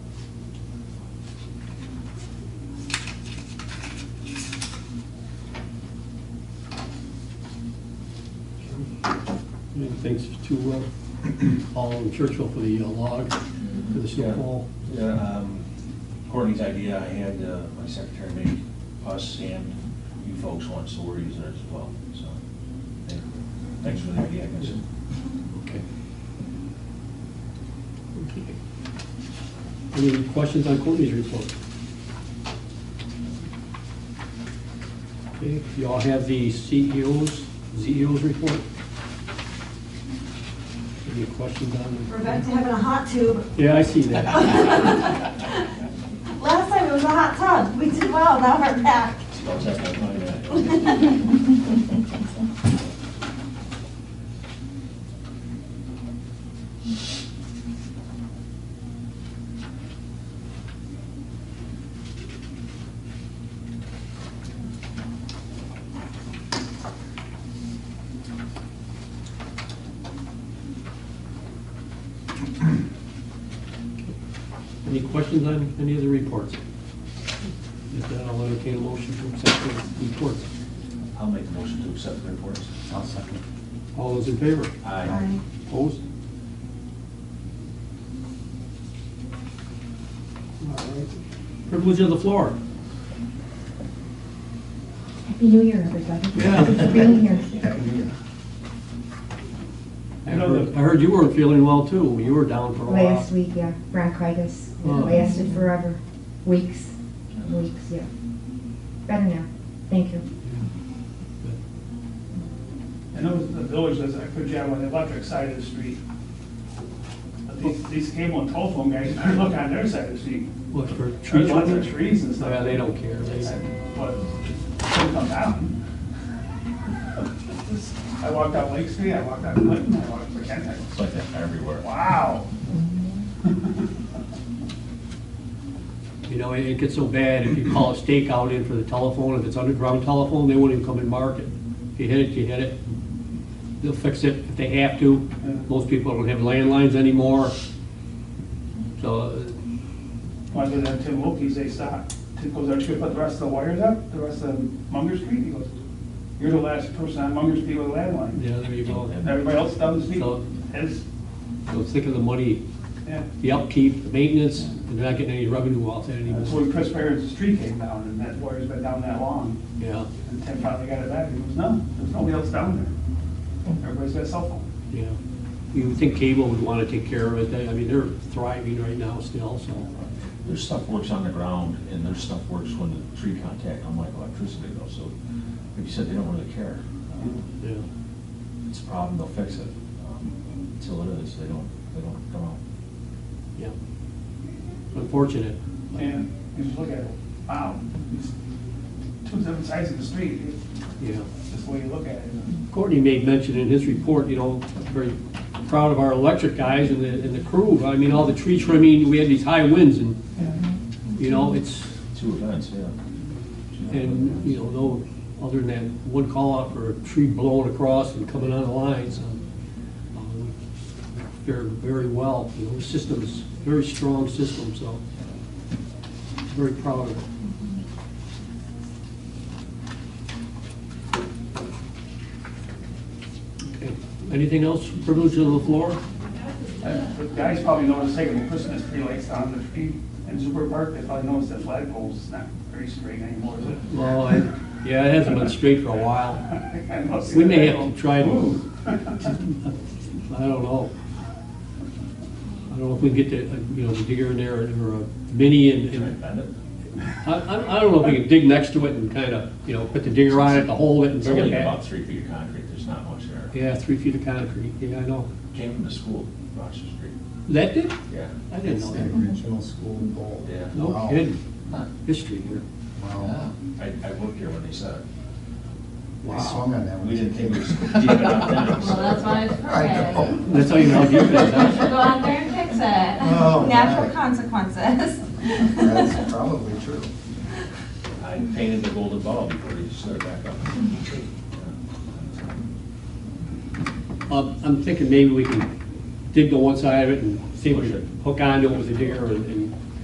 thanks to uh, Paul and Churchill for the uh, log, for the snowfall. Yeah, um, Courtney's idea, I had uh, my secretary make us and you folks one, so we're using it as well, so. thank- Thanks for the idea, I guess. Okay. Okay. Any questions on Courtney's report? Okay, you all have the E CEO's, CEO's report? Any questions We're on? back to having a hot tube. Yeah, I see that. Last time it was a hot tub. We did well, now we're back. So I'll take that money back. Any questions on any of the reports? If not, I'll entertain a motion to accept the reports. I'll make a motion to accept the reports. I'll second. All those in favor? Aye. Opposed? All right. Privilege of the floor. Happy New Year, everybody. Yeah. Happy New Year. I know that- I heard you weren't feeling well too. You were down for a while. Last week, yeah, bronchitis. It Oh. lasted forever. Weeks, weeks, yeah. Better now. Thank you. I know the village does a good job on the electric side of the street. But these, these cable and telephone guys, better look on their side of the street. What, for There's trees? lots of trees and stuff. Yeah, they don't care. They- But, they come down. I walked out Lake Street, I walked out Clinton, I walked out Kent, I It's like that everywhere. wow. You know, it it gets so bad if you call a stakeout in for the telephone, if it's underground telephone, they won't even come and mark it. If you hit it, you hit it. They'll fix it if they have to. Yeah. Most people don't have landlines anymore. So uh, When I go down to Tim Wilkie's, they stop, Tim goes, aren't you gonna put the rest of the wires up, the rest of Munger Street? He goes, you're the last person on Munger Street with a landline. Yeah, there you go. And everybody else down the street So- has, So think of the money, yeah. the upkeep, the maintenance, and they're not getting any revenue off that That's anymore. when Chris Barron's tree came down, and that wire's been down that long, Yeah, and Tim finally got it back, and he goes, no, there's nobody else down there. Everybody's got a cell phone. yeah. You would think cable would want to take care of it. They- I mean, they're thriving right now still, so. There's stuff works on the ground, and there's stuff works when the tree contact, unlike electricity though, so, like you said, they don't really care. Uh, Yeah. It's a problem, they'll fix it. Um, Until it is, they don't, they don't come out. Yeah. Unfortunate. And you just look at it, wow, it's two different sides of the street, Yeah. it's just the way you look at it. Courtney made mention in his report, you know, very proud of our electric guys and the, and the crew. I mean, all the tree trimming, we had these high winds and, you know, it's, Two events, yeah. and, you know, no, other than that one call out for a tree blowing across and coming on the lines, um, um, fared very well, you know, the system's, very strong system, so very proud of it. Okay. Anything else, privilege of the floor? Uh, The guys probably noticed taking the Christmas tree lights down the street, and Super Park, they probably noticed that flagpole's not very straight anymore, is it? Well, I- yeah, it hasn't been straight for a while. I must see We the may have flagpole. to try to Ooh. I don't know. I don't know if we can get the, uh, you know, the digger in there or a mini and, Can I and, bend it? I, I I don't know if we can dig next to it and kind of, you know, put the digger on it to hold it and It's bring it only back. about three feet of concrete, there's not much there. Yeah, three feet of concrete, yeah, I know. Came from the school, Rochester Street. That did? Yeah. I didn't It's know the that. original school goal. Yeah. No Wow. kidding. Huh. History here. Wow. I, I worked here when they said it. I swung on that one. We didn't think it was deep enough then. so- Well, that's why it's I perfect. know. That's how you know how deep it You is, should go huh? out there and fix it. Oh, Natural my. consequences. That's probably true. I painted the golden ball before they set it back up. Um, I'm thinking maybe we can dig to one side of it and see if we Push can it. hook onto it with the digger and, and